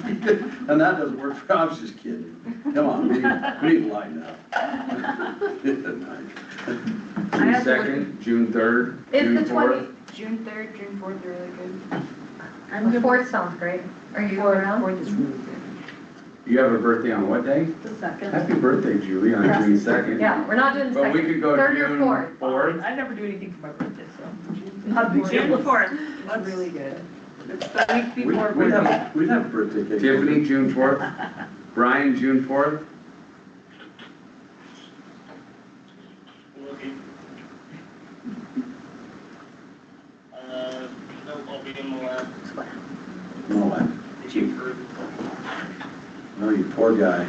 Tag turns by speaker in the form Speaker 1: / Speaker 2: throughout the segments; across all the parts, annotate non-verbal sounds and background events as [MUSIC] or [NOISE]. Speaker 1: [LAUGHS] And that doesn't work for, I was just kidding. Come on, we, need- we need light up.
Speaker 2: I
Speaker 3: June
Speaker 2: have to look-
Speaker 3: second, June third,
Speaker 2: Is the
Speaker 3: June
Speaker 2: twenty,
Speaker 3: fourth.
Speaker 2: June third, June fourth are really good.
Speaker 4: I'm good. Fourth sounds great. Are you around?
Speaker 2: Fourth is really good.
Speaker 3: You have a birthday on what day?
Speaker 5: The second.
Speaker 3: Happy birthday, Julie, on
Speaker 5: Yeah.
Speaker 3: June second.
Speaker 4: Yeah, we're not doing the
Speaker 3: But we
Speaker 4: second,
Speaker 3: could go
Speaker 4: third or
Speaker 3: June
Speaker 4: fourth.
Speaker 3: fourth.
Speaker 5: I never do anything for my birthday, so.
Speaker 2: Not big
Speaker 5: June
Speaker 2: deal.
Speaker 5: fourth,
Speaker 2: That's-
Speaker 5: it's really good. It's the week
Speaker 1: We-
Speaker 5: before.
Speaker 1: We'd
Speaker 5: birthday.
Speaker 1: have, we'd have birthday cake.
Speaker 3: Tiffany, June
Speaker 5: [LAUGHS]
Speaker 3: fourth. Brian, June fourth.
Speaker 6: Looking. Uh, no, I'll be in the lab.
Speaker 1: No, I-
Speaker 6: Chief. for-
Speaker 1: no, you poor guy.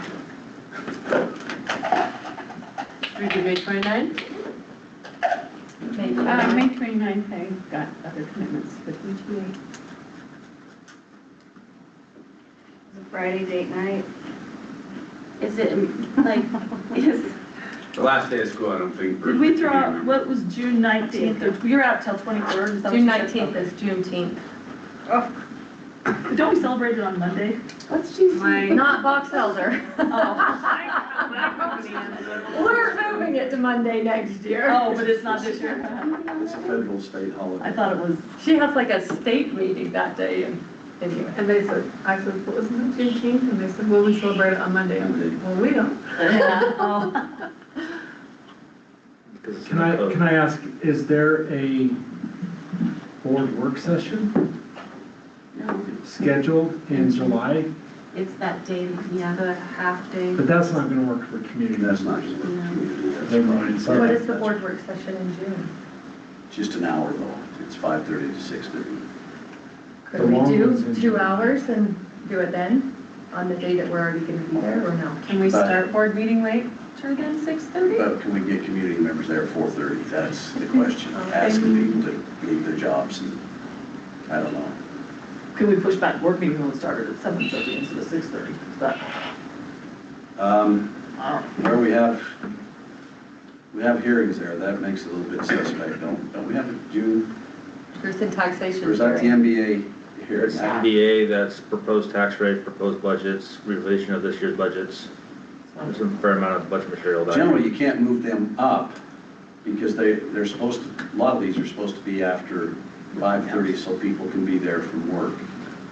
Speaker 7: We do May twenty-ninth?
Speaker 4: Maybe.
Speaker 5: Uh, May twenty-ninth, I've got other commitments with ETA.
Speaker 2: It's a Friday date night.
Speaker 7: Is it,
Speaker 4: [LAUGHS]
Speaker 7: like, is,
Speaker 3: The last day of school, I don't think.
Speaker 5: Did we throw out, what was June nineteenth, or we were out till twenty-third, is that what
Speaker 4: June
Speaker 5: you said?
Speaker 4: nineteenth is Juneteenth.
Speaker 5: But Don't we celebrate it on Monday?
Speaker 7: what's June?
Speaker 4: Not Box Elder.
Speaker 7: Oh.
Speaker 4: [LAUGHS] We're moving it to Monday next year.
Speaker 5: Oh, but it's not this year.
Speaker 1: It's a federal state holiday.
Speaker 5: I thought it was,
Speaker 4: She has like a state meeting that day and anyway.
Speaker 7: And they said, I said, well, isn't it Juneteenth? And they said, well, we celebrate it on Monday. I'm like, well, we don't.
Speaker 5: [LAUGHS]
Speaker 4: Yeah.
Speaker 8: Can I, can I ask, is there a board work session
Speaker 7: No,
Speaker 8: scheduled in July?
Speaker 7: it's that day, yeah, the half day.
Speaker 8: But that's not gonna work for community.
Speaker 1: Mm, That's not just a community, that's
Speaker 8: Never mind,
Speaker 1: fine.
Speaker 8: sorry. What is
Speaker 4: work session in June?
Speaker 1: Just an hour though, it's five thirty to six thirty.
Speaker 8: The
Speaker 4: Could we
Speaker 8: long one's
Speaker 4: do
Speaker 8: in
Speaker 4: two
Speaker 8: June.
Speaker 4: hours and do it then, on the day that we're already gonna be there, or no?
Speaker 7: Can we
Speaker 1: But-
Speaker 7: start board meeting later than six thirty?
Speaker 1: But can we get community members there at four thirty? That's the question. Asking people to leave their jobs and, I don't know.
Speaker 5: could we push back work meeting when it started at seven thirty instead of six thirty? But,
Speaker 1: Um,
Speaker 5: I don't know.
Speaker 1: where we have, we have hearings there, that makes it a little bit suspect, don't, don't we have a June,
Speaker 4: There's in taxation.
Speaker 1: or is that the
Speaker 4: hearing.
Speaker 1: NBA hearing?
Speaker 9: It's MBA, that's proposed tax rate, proposed budgets, revision of this year's budgets. There's a fair amount of budget material that.
Speaker 1: Generally, you can't move them up because they, they're supposed to, a lot of these are supposed to be after five thirty so people can be there from work.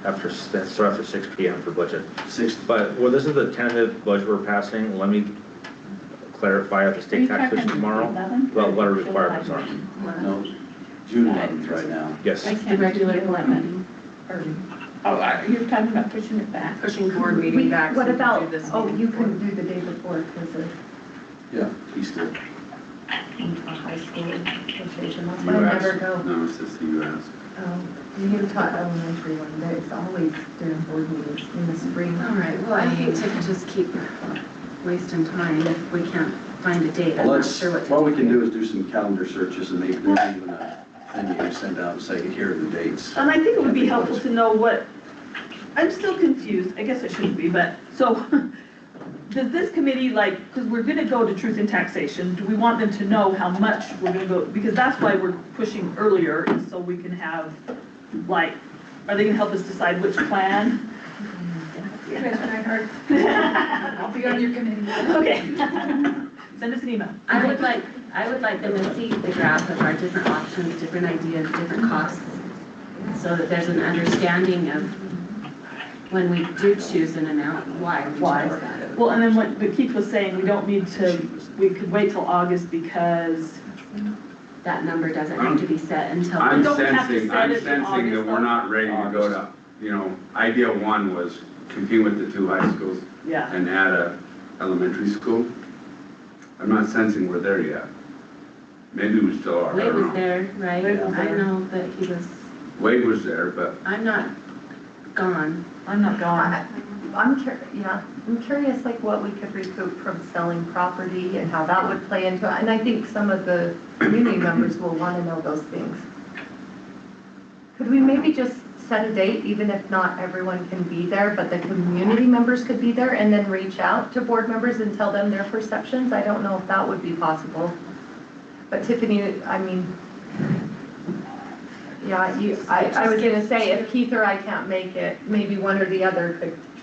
Speaker 9: After, s- that start after six P M for budget.
Speaker 1: Six,
Speaker 9: But, well, this is the tentative budget we're passing, let me clarify at the
Speaker 5: Are you
Speaker 9: state tax
Speaker 5: talking
Speaker 9: commission tomorrow,
Speaker 5: eleven?
Speaker 9: about what our requirements are.
Speaker 1: no, June eleventh right now.
Speaker 9: Yes,
Speaker 5: I can't do it eleven. Or- Oh, are you talking about pushing it back?
Speaker 7: Pushing board
Speaker 4: We-
Speaker 7: meeting back. so
Speaker 4: What
Speaker 7: we could
Speaker 4: about,
Speaker 7: do this
Speaker 4: oh,
Speaker 7: meeting
Speaker 4: you
Speaker 7: before.
Speaker 4: couldn't do the day before because of
Speaker 1: Yeah, he's still.
Speaker 4: Utah High School Association, that's why I
Speaker 3: US.
Speaker 4: never go.
Speaker 3: No, it's just the US.
Speaker 4: Oh, Utah Elementary one, but it's always during board meetings in the spring.
Speaker 7: All right, well, I hate to just keep wasting time if we can't find a date. I'm
Speaker 1: Well,
Speaker 7: not
Speaker 1: let's,
Speaker 7: sure what to
Speaker 1: what we can do is do some calendar searches and maybe there's even a thing you can send out and say, here are the dates.
Speaker 5: And I think it would be helpful to know what, I'm still confused, I guess I shouldn't be, but, so, [LAUGHS] does this committee, like, because we're gonna go to truth in taxation, do we want them to know how much we're gonna go, because that's why we're pushing earlier, is so we can have, like, are they gonna help us decide which plan?
Speaker 4: [LAUGHS]
Speaker 5: [LAUGHS]
Speaker 4: I'll be on your committee.
Speaker 5: Okay. [LAUGHS] Send us an email.
Speaker 7: I would like, I would like them to see the graph of our different options, different ideas, different costs, so that there's an understanding of when we do choose an amount, why we
Speaker 5: Why?
Speaker 7: chose that.
Speaker 5: Well, and then what but Keith was saying, we don't need to, we could wait till August because
Speaker 7: That number doesn't need to be set until.
Speaker 3: I'm
Speaker 5: don't have to
Speaker 3: sensing,
Speaker 5: set
Speaker 3: I'm
Speaker 5: it in
Speaker 3: sensing that
Speaker 5: August,
Speaker 3: we're
Speaker 5: though.
Speaker 3: not ready to go to, you know, idea one was compete with the two high schools
Speaker 5: Yeah,
Speaker 3: and add a elementary school. I'm not sensing we're there yet. Maybe we still are, I
Speaker 7: Wade was
Speaker 3: don't know.
Speaker 7: there, right?
Speaker 5: Wade was
Speaker 7: I
Speaker 5: there.
Speaker 7: know that he was,
Speaker 3: Wade was there, but
Speaker 7: I'm not gone.
Speaker 5: I'm not gone.
Speaker 4: I'm cur, yeah, I'm curious like what we could recoup from selling property and how that would play into it. And I think some of the community members will want to know those things. Could we maybe just set a date, even if not everyone can be there, but the community members could be there and then reach out to board members and tell them their perceptions? I don't know if that would be possible. But Tiffany, I mean, yeah, you, I, I was gonna say, if Keith or I can't make it, maybe one or the other could